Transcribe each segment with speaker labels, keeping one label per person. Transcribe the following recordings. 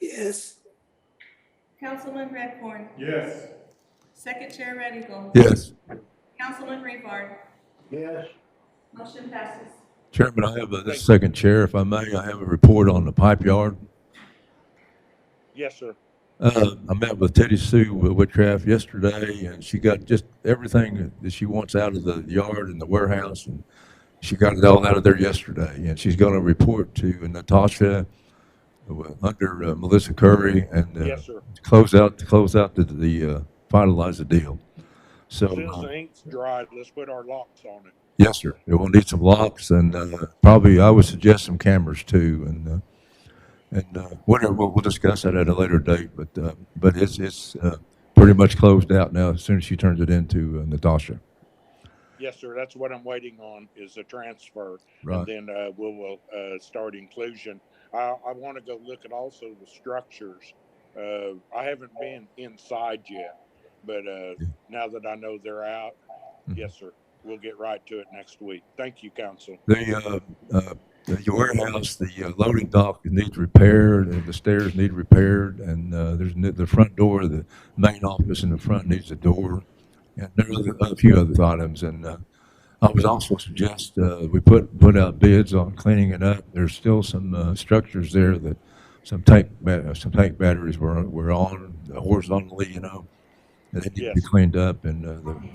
Speaker 1: Yes.
Speaker 2: Councilman Redcorn,
Speaker 3: Yes.
Speaker 2: Second Chair Red Eagle,
Speaker 4: Yes.
Speaker 2: Councilman Rebar,
Speaker 3: Yes.
Speaker 2: motion passes.
Speaker 4: Chairman, I have a second chair, if I may. I have a report on the pipe yard.
Speaker 3: Yes, sir.
Speaker 4: Uh, I met with Teddy Sue with Whitcraft yesterday, and she got just everything that she wants out of the yard and the warehouse, and she got it all out of there yesterday. And she's going to report to Natasha uh, under uh, Melissa Curry and uh,
Speaker 3: Yes, sir.
Speaker 4: to close out to close out the, the uh, finalize the deal. So
Speaker 3: Since
Speaker 4: uh,
Speaker 3: the ink's dried, let's put our locks on it.
Speaker 4: Yes, sir. It will need some locks and uh, probably, I would suggest some cameras too. And, uh, and uh, whatever, we'll, we'll discuss that at a later date, but, uh, but it's, it's uh, pretty much closed out now as soon as she turns it into uh, Natasha.
Speaker 3: Yes, sir. That's what I'm waiting on is the transfer. And
Speaker 4: Right.
Speaker 3: then uh, we will uh, start inclusion. I, I want to go look at also the structures. Uh, I haven't been inside yet, but uh, now that I know they're out,
Speaker 4: Mhm.
Speaker 3: yes, sir. We'll get right to it next week. Thank you, council.
Speaker 4: The, uh, uh, the warehouse, the uh, loading dock needs repaired, and the stairs need repaired, and uh, there's n- the front door, the main office in the front needs a door, and there are other- a few other items. And uh, I would also suggest uh, we put put out bids on cleaning it up. There's still some uh, structures there that some tank ba- uh, some tank batteries were were on horizontally, you know, and they need to be
Speaker 3: Yes.
Speaker 4: cleaned up, and uh, the the-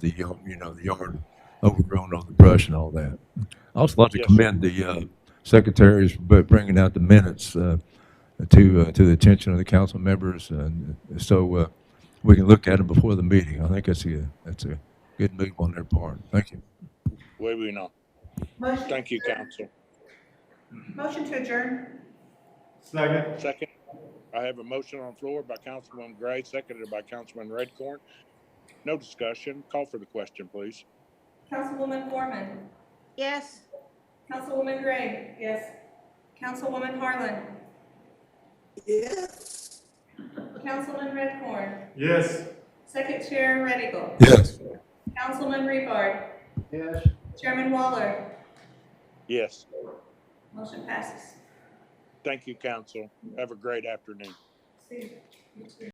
Speaker 4: the yard, you know the yard overgrown on the brush and all that. I also like to
Speaker 3: Yes.
Speaker 4: commend the uh, secretaries for bringing out the minutes uh, to, uh, to the attention of the council members, and so uh, we can look at them before the meeting. I think that's a, that's a good move on their part. Thank you.
Speaker 3: Way we know.
Speaker 2: Motion,
Speaker 3: Thank you, council.
Speaker 2: motion to adjourn.
Speaker 5: Second.
Speaker 3: Second, I have a motion on the floor by Councilman Gray, seconded by Councilman Redcorn. No discussion. Call for the question, please.
Speaker 2: Councilwoman Foreman,
Speaker 6: Yes.
Speaker 2: Councilwoman Gray. Yes. Councilwoman Harlan,
Speaker 1: Yes.
Speaker 2: Councilman Redcorn,
Speaker 5: Yes.
Speaker 2: Second Chair Red Eagle,
Speaker 4: Yes.
Speaker 2: Councilman Rebar,
Speaker 5: Yes.
Speaker 2: Chairman Waller,
Speaker 3: Yes,
Speaker 2: motion passes.
Speaker 3: thank you, council. Have a great afternoon.
Speaker 2: See you. You too.